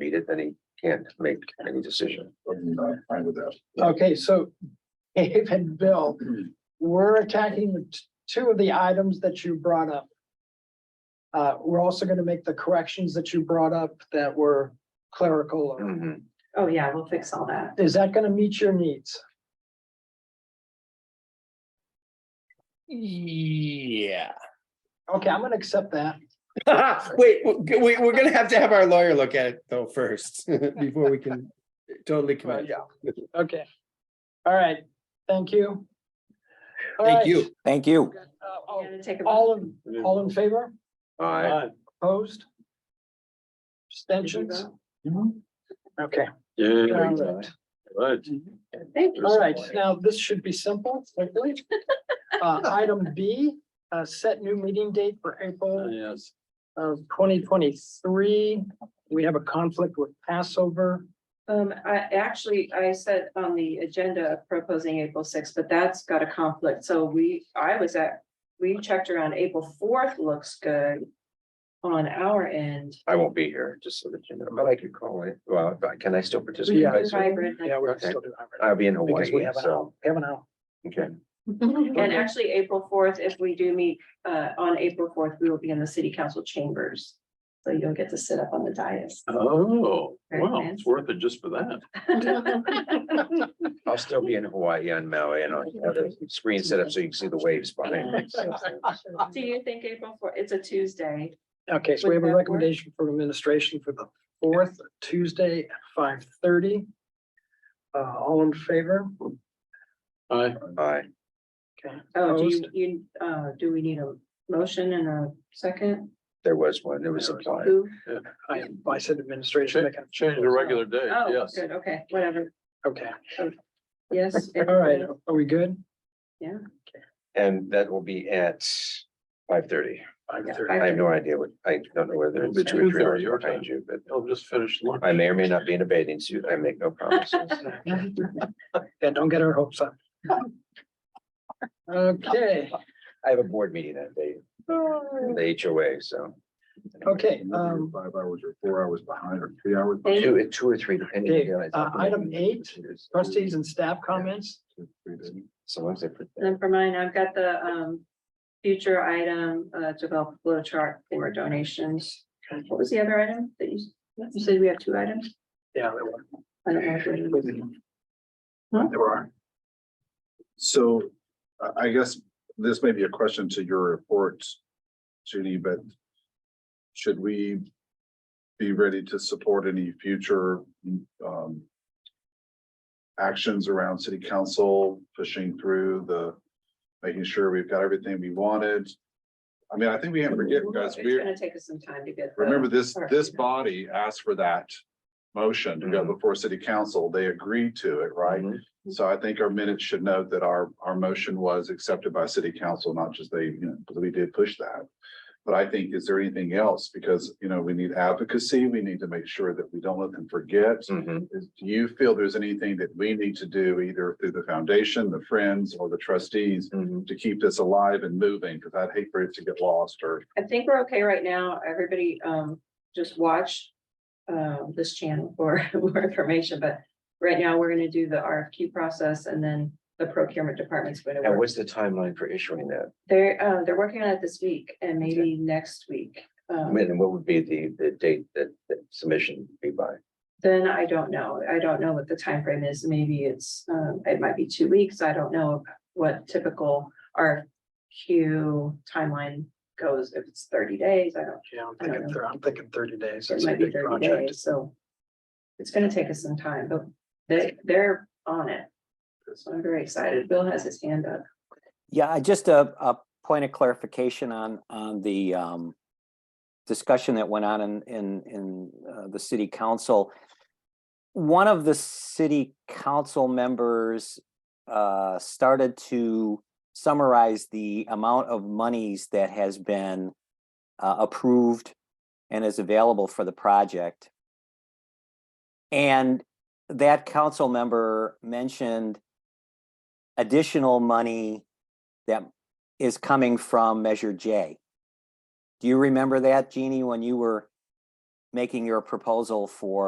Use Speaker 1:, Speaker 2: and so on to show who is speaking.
Speaker 1: it, then he can't make any decision.
Speaker 2: I'm fine with that.
Speaker 3: Okay, so Dave and Bill, we're attacking the t- two of the items that you brought up. Uh, we're also gonna make the corrections that you brought up that were clerical.
Speaker 4: Oh, yeah, we'll fix all that.
Speaker 3: Is that gonna meet your needs?
Speaker 5: Yeah.
Speaker 3: Okay, I'm gonna accept that.
Speaker 5: Wait, we, we- we're gonna have to have our lawyer look at it though first, before we can totally commit.
Speaker 3: yeah. Okay. All right, thank you. All
Speaker 5: Thank
Speaker 3: right,
Speaker 5: you.
Speaker 6: Thank
Speaker 3: uh,
Speaker 6: you.
Speaker 4: You
Speaker 3: all-
Speaker 4: gotta take a
Speaker 3: All
Speaker 4: vote.
Speaker 3: in, all in favor?
Speaker 1: Aye.
Speaker 3: Opposed?
Speaker 4: Did you
Speaker 3: Abstentions?
Speaker 4: vote?
Speaker 3: Okay.
Speaker 1: Yeah.
Speaker 3: all right.
Speaker 4: Thank you.
Speaker 3: All right, now this should be simple, hopefully. Uh, item B, uh, set new meeting date for April
Speaker 1: Yes.
Speaker 3: of twenty twenty-three. We have a conflict with Passover.
Speaker 4: Um, I actually, I said on the agenda proposing April sixth, but that's got a conflict. So we, I was at, we checked around April fourth looks good. On our end.
Speaker 1: I won't be here, just so that you know, but I could call it. Well, but can I still participate?
Speaker 3: Yeah.
Speaker 1: by Zoom?
Speaker 4: Hybrid.
Speaker 3: Yeah, we're
Speaker 1: Okay.
Speaker 3: still doing hybrid
Speaker 1: I'll be in
Speaker 3: because
Speaker 1: Hawaii,
Speaker 3: we have an hour,
Speaker 1: so,
Speaker 3: we have an hour.
Speaker 1: okay.
Speaker 4: And actually, April fourth, if we do meet, uh, on April fourth, we will be in the city council chambers. So you'll get to sit up on the dais.
Speaker 7: Oh,
Speaker 4: Very
Speaker 7: wow,
Speaker 4: fancy.
Speaker 7: it's worth it just for that.
Speaker 1: I'll still be in Hawaii on Maui and I'll have the screen set up so you can see the waves behind me.
Speaker 4: Do you think April fourth? it's a Tuesday?
Speaker 3: Okay, so we
Speaker 4: Would
Speaker 3: have a
Speaker 4: that work?
Speaker 3: recommendation from administration for the fourth Tuesday at five thirty. Uh, all in favor?
Speaker 7: I,
Speaker 1: Aye.
Speaker 3: Okay.
Speaker 4: Oh, do you,
Speaker 3: Opposed?
Speaker 4: you, uh, do we need a motion and a second?
Speaker 1: There was one, it was implied.
Speaker 4: Who?
Speaker 3: I, I said administration, they can-
Speaker 7: change the regular day,
Speaker 4: Oh,
Speaker 7: yes.
Speaker 4: good, okay, whatever,
Speaker 3: okay,
Speaker 4: yes.
Speaker 3: all right, are we good?
Speaker 1: And that will be at five thirty.
Speaker 3: Five
Speaker 4: Yeah.
Speaker 3: thirty.
Speaker 1: I have no idea what, I don't know whether it's two or three hours behind you, but
Speaker 7: I'll just finish lunch.
Speaker 1: I may or may not be in a bathing suit. I make no promises.
Speaker 3: Yeah, don't get our hopes up. Okay,
Speaker 1: I have a board meeting that day, the HOA, so
Speaker 3: Oh. okay,
Speaker 2: Whether you're
Speaker 3: um,
Speaker 2: Five hours or four hours behind or three hours.
Speaker 4: Thank
Speaker 2: behind,
Speaker 1: two, at two or three, depending.
Speaker 3: Dave,
Speaker 1: on-
Speaker 3: uh, item eight, trustees and staff comments,
Speaker 2: three days.
Speaker 1: So once I put that,
Speaker 4: Then for mine, I've got the, um, future item, uh, develop flow chart for donations. What was the other item that you, you said we have two items?
Speaker 3: yeah. there were-
Speaker 4: I don't know. if we-
Speaker 3: There are,
Speaker 2: So I, I guess this may be a question to your report, Judy, but should we be ready to support any future um actions around city council, pushing through the, making sure we've got everything we wanted? I mean, I think we can't forget, guys,
Speaker 4: It's
Speaker 2: we
Speaker 4: gonna take us some time to get. the-
Speaker 2: remember this,
Speaker 4: Alright.
Speaker 2: this body asked for that motion to go before city council. They agreed to it, right? So I think our minutes should note that our, our motion was accepted by city council, not just they, you know, because we did push that. But I think, is there anything else? Because, you know, we need advocacy. We need to make sure that we don't let them forget.
Speaker 1: Mhm.
Speaker 2: Is- Do you feel there's anything that we need to do either through the foundation, the friends or the trustees
Speaker 1: Mhm.
Speaker 2: to keep this alive and moving? Because I'd hate for it to get lost or
Speaker 4: I think we're okay right now. Everybody, um, just watch um, this channel for more information, but right now we're gonna do the RFQ process and then the procurement department's gonna
Speaker 1: and
Speaker 4: work.
Speaker 1: what's the timeline for issuing that?
Speaker 4: They're, uh, they're working on it this week and maybe next week. Um,
Speaker 1: When and what would be the, the date that, that submission would be by?
Speaker 4: Then I don't know. I don't know what the time frame is. Maybe it's, um, it might be two weeks. I don't know what typical RFQ timeline goes. If it's thirty days, I don't,
Speaker 3: yeah, I'm thinking, thir- I'm thinking thirty days,
Speaker 4: It
Speaker 3: it's a
Speaker 4: might be
Speaker 3: big
Speaker 4: thirty
Speaker 3: project.
Speaker 4: days, so. It's gonna take us some time, but they, they're on it. So I'm very excited. Bill has his hand up.
Speaker 6: Yeah, I just a, a point of clarification on, on the um, discussion that went on in, in, in uh, the city council. One of the city council members uh, started to summarize the amount of monies that has been uh, approved and is available for the project. And that council member mentioned additional money that is coming from Measure J. Do you remember that, Jeannie, when you were making your proposal for